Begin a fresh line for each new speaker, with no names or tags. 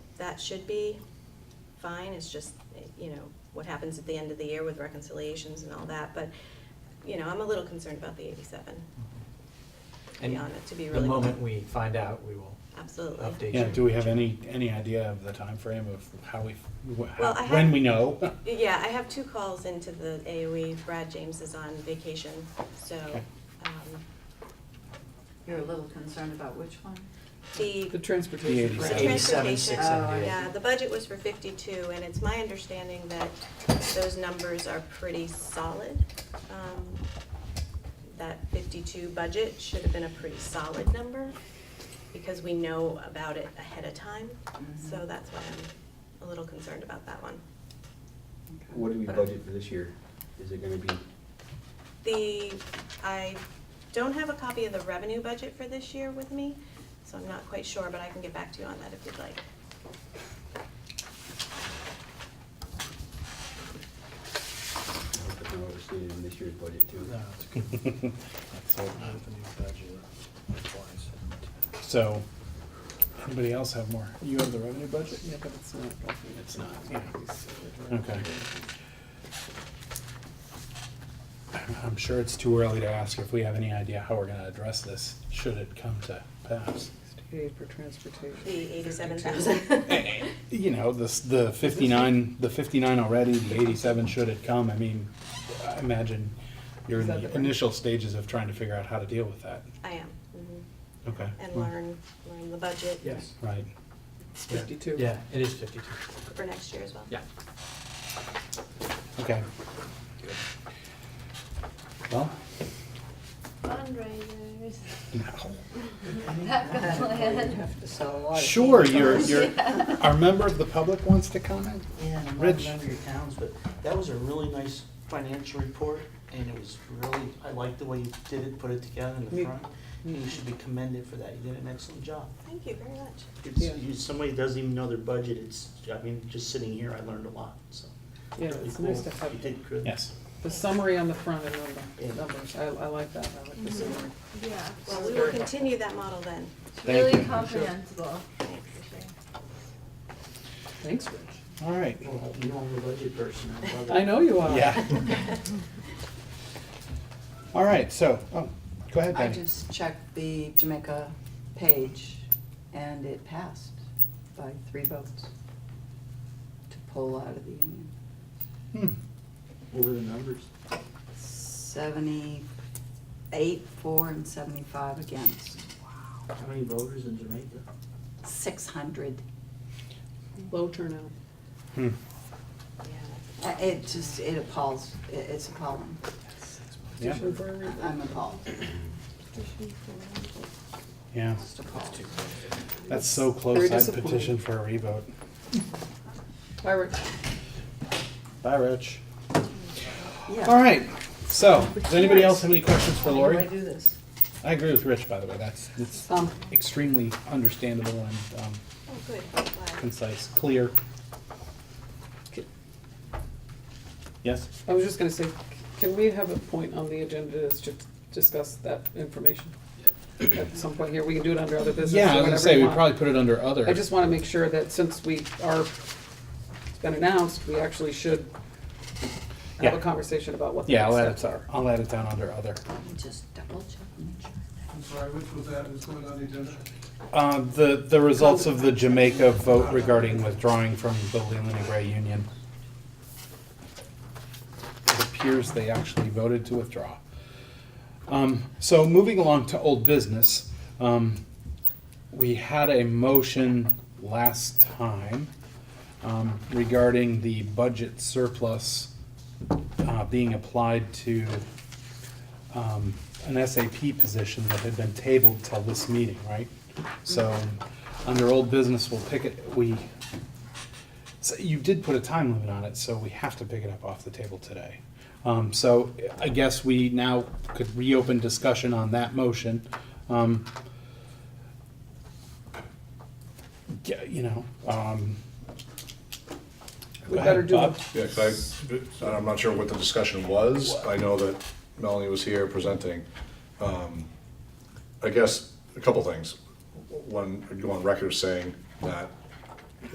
that should be fine, it's just, you know, what happens at the end of the year with reconciliations and all that, but, you know, I'm a little concerned about the eighty-seven, to be
And
honest, to be
The
really.
moment we find out, we will
Absolutely.
update
Yeah,
you.
do we have any, any idea of the time frame of how we, wh- how-
I
when
had-
we know?
Yeah, I have two calls into the AOE, Brad James is on vacation, so,
Okay.
um,
You're a little concerned about which one?
the.
The transportation.
The
Right.
plan.
Eighty-seven,
transportation,
six seventy-eight.
Oh, yeah, the budget was for fifty-two, and it's my understanding that those numbers are pretty solid. Um, That fifty-two budget should have been a pretty solid number, because we know about it ahead of time, so that's why I'm a little concerned about that one.
Okay.
What do we
But-
budget for this year? Is it gonna be,
The, I don't have a copy of the revenue budget for this year with me, so I'm not quite sure, but I can get back to you on that if you'd like.
I hope it's not overstated in this year's budget too.
uh, uh,
So, anybody else have more? You have the revenue budget?
Yeah, but it's not.
It's not, yeah. Okay. I'm sure it's too early to ask if we have any idea how we're gonna address this, should it come to pass.
Sixty-eight for transportation.
The eighty-seven
52.
thousand.
You know, this, the fifty-nine, the fifty-nine already, the eighty-seven should it come, I mean, I imagine you're in
Is that
the
the-
initial stages of trying to figure out how to deal with that.
I am, mhm.
Okay.
and learn, learn the budget
Yes,
Right.
it's fifty-two.
Yeah, it is fifty-two.
for next year as well.
Yeah.
Okay. Well,
fundraisers.
no.
That's the
You'd
plan.
have to sell a lot of
Sure,
things.
you're, you're, our member of the public wants to comment?
Yeah, and I'm not
Rich.
remembering your towns, but that was a really nice financial report, and it was really, I liked the way you did it, put it together in the
You-
front. and You should be commended for that, you did an excellent job.
Thank you very much.
It's,
Yeah.
you, somebody doesn't even know their budget, it's, I mean, just sitting here, I learned a lot, so.
Yeah,
really
it's nice to
cool. You
have
did good.
Yes.
the summary on the front and then
Yeah.
the numbers. I, I like that. I like the
Mm-hmm.
summary.
Yeah,
Well, we will continue that model then.
it's
Thank you.
really comprehensible.
Thanks for sharing.
Thanks, Rich.
All right.
Well, You know, I'm a budget person, I love it.
I know you are.
Yeah. All right, so, oh, go ahead,
I
Betty.
just checked the Jamaica page, and it passed by three votes to pull out of the union.
Hmm.
What were the numbers?
Seventy-eight, four, and seventy-five against,
How many voters in Jamaica?
six hundred.
Low turnout.
Hmm.
Yeah,
Uh, It just, it appalls, it- it's appalling.
Yeah,
Petition for a revote.
I'm appalled,
yeah,
just appalled.
that's so
Very
close, I'd
disappointing.
petition for a revote.
Bye, Rich.
Bye, Rich.
Yeah.
All right, so, does anybody else have any questions for
Why
Lori?
do I do this?
I agree with Rich, by the way, that's, it's
Um,
extremely understandable and um,
oh, good, I'm glad.
concise, clear. Yes?
I was just gonna say, c- can we have a point on the agenda that's to discuss that information? At some point here, we can do it under other business
Yeah, I
or
was gonna
whatever
say,
you
we
want.
probably put it under other.
I just wanna make sure that since we are, it's been announced, we actually should have
Yeah.
a conversation about what the
Yeah,
next
I'll add it,
steps are.
I'll add it down under other.
let me just double check, and make sure.
I'm sorry, which was that, was going on the agenda?
Uh, The, the results of the Jamaica vote regarding withdrawing from the Leland and Gray Union. It appears they actually voted to withdraw. Um, So moving along to old business, um, we had a motion last time um, regarding the budget surplus uh, being applied to um, an SAP position that had been tabled till this meeting, right? So, under old business, we'll pick it, we, so you did put a time limit on it, so we have to pick it up off the table today. Um, so I guess we now could reopen discussion on that motion. Um, yeah, you know, um.
We
go ahead,
better do
Bob.
the
Yeah, 'cause I, I'm not sure what the discussion was. I know that Melanie was here presenting. Um, I guess a couple things. One, I'd go on record saying that